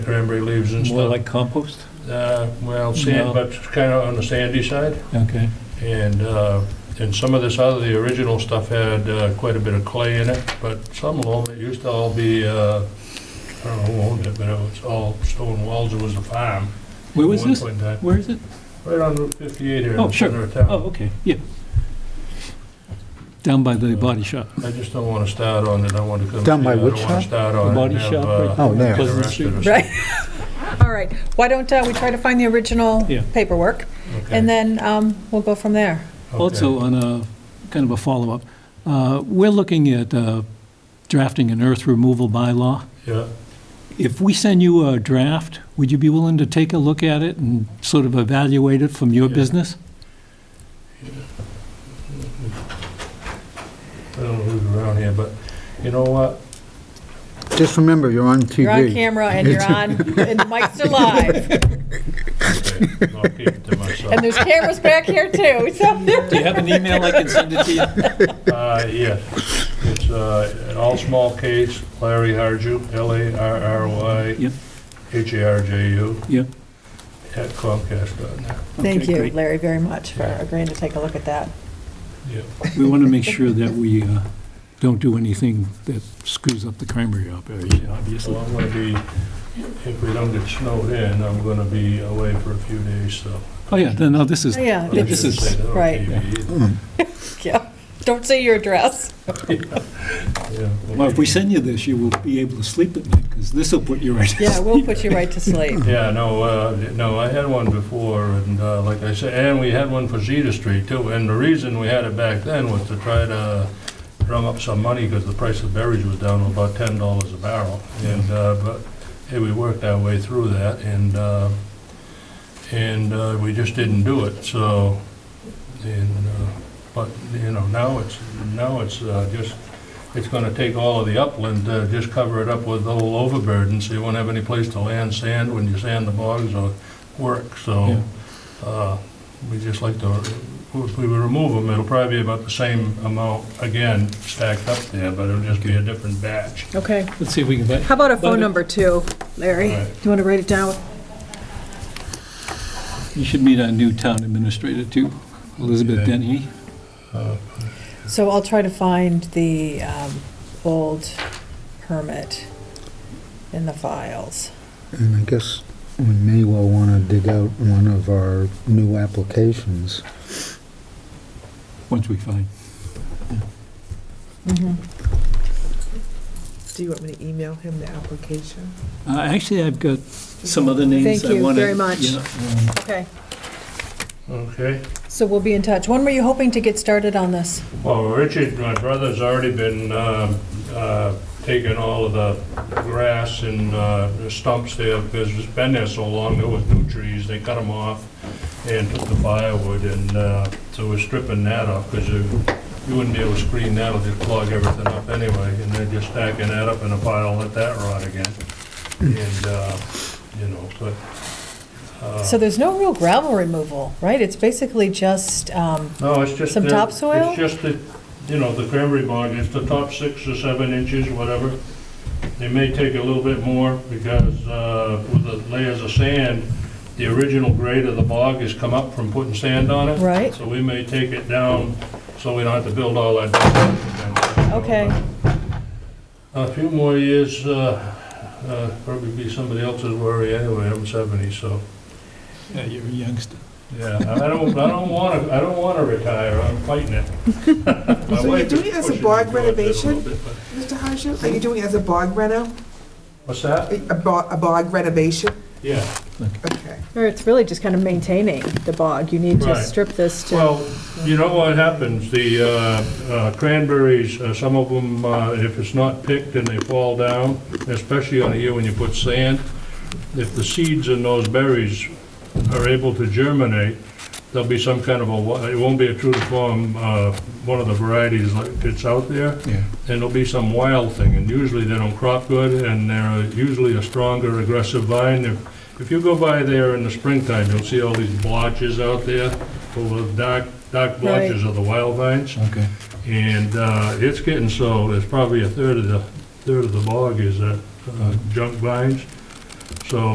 cranberry leaves and More stuff. like compost? Uh, Well, sand, No. but kind of on the sandy side. Okay. And, uh, and some of this other, the original stuff had uh, quite a bit of clay in it, but some of them, it used to all be, uh, I don't know who owned it, but it was all stone walls, it was a farm. Where was At one this? point in time. Where is it? Right on Route 58 here in Oh, the sure. center of Oh, town. okay, yeah. Down by the body shop. I just don't want to start on it, I want to come see. Down by it. which I don't want shop? to start The on it. body and have, shop, uh, right? Oh, there. the Pleasant rest Street. of us- Right. All right. Why don't uh, we try to find the original Yeah. paperwork, Okay. and then um, we'll go from there. Okay. Also, on a, kind of a follow-up, uh, we're looking at uh, drafting an earth removal bylaw. Yeah, If we send you a draft, would you be willing to take a look at it and sort of evaluate it from your Yeah. business? I don't know who's around here, but you know what? Just remember, you're on TV. You're on camera, and you're on, and the mics are live, Okay, I'll keep it to myself. and there's cameras back here too. So Do you have an email I can send it to you? Uh, Yes. It's uh, an all-small case, Larry Harju, L-A-R-R-Y, Yep, H-A-R-J-U, yep. at Comcast.net. thank Okay, you, great. Larry, very much for agreeing to take a look at that. Yep. We want to make sure that we uh, don't do anything that screws up the cranberry operation, So obviously. I'm going to be, if we don't get snowed in, I'm going to be away for a few days, so. Oh, yeah, no, no, this is, Oh, yeah. yeah, this I shouldn't say is, that on right. TV either. Yeah. Don't say your address. Yeah, we'll well, if be- we send you this, you will be able to sleep at night, because this will put you right. to Yeah, sleep. we'll put you right to sleep. Yeah, no, uh, no, I had one before, and uh, like I said, and we had one for Zeta Street too, and the reason we had it back then was to try to drum up some money, because the price of berries was down to about ten dollars a barrel, and, uh, but, hey, we worked our way through that, and, uh, and uh, we just didn't do it, so, and, uh, but, you know, now it's, now it's uh, just, it's gonna take all of the upland, uh, just cover it up with the whole overburden, so you won't have any place to land sand when you sand the bogs or work, so, uh, we just like to, if we remove them, it'll probably be about the same amount, again, stacked up there, but it'll just be a different batch. Okay. Let's see if we can find. How about a But- phone number too, Larry? All Do right. you want to write it down? You should meet our new town administrator too, Elizabeth Okay. Denny. So I'll try to find the um, old permit in the files. And I guess we may well want to dig out one of our new applications. once we find. Mm-hmm. Do you want me to email him the application? Uh, Actually, I've got some other names Thank I you want to. very much. Okay. Okay. So we'll be in touch. When were you hoping to get started on this? Well, Richard, my brother's already been um, uh, taking all of the grass and uh, the stumps there, because it's been there so long, there was new trees, they cut them off and took the firewood, and uh, so we're stripping that off, because you you wouldn't be able to screen that, it'll just clog everything up anyway, and they're just stacking that up in a pile, let that rot again. And, uh, you know, but, uh, So there's no real gravel removal, right? It's basically just, um, No, it's just. Some the- topsoil? It's just the, you know, the cranberry bog, it's the top six or seven inches, whatever. They may take a little bit more because uh, with the layers of sand, the original grade of the bog has come up from putting sand on it. Right. So we may take it down so we don't have to build all that. back up again. okay, A few more years, uh, uh, probably be somebody else's worry anyway, I'm 70, so. Yeah, you're a youngster. Yeah, I don't, I don't want to, I don't want to retire, I'm fighting it. My So you're wife is doing it as a pushing barn me towards it a little renovation? bit, but- Mr. Harshaw, are you doing it as a bog reno? What's A that? bo- a bog renovation? Yeah, Okay. or it's really just kind of maintaining the bog. You need to Right. strip this to, well, you know what happens, the uh, uh, cranberries, uh, some of them, if it's not picked and they fall down, especially on a year when you put sand, if the seeds in those berries are able to germinate, there'll be some kind of a, wa- it won't be a true to form, uh, one of the varieties like that's out there. Yeah. and there'll be some wild thing, and usually they don't crop good, and they're usually a stronger, aggressive vine. If- If you go by there in the springtime, you'll see all these blotches out there, full of dark, dark blotches of the wild vines, Okay. and uh, it's getting so, it's probably a third of the, third of the bog is uh, uh, junk vines, So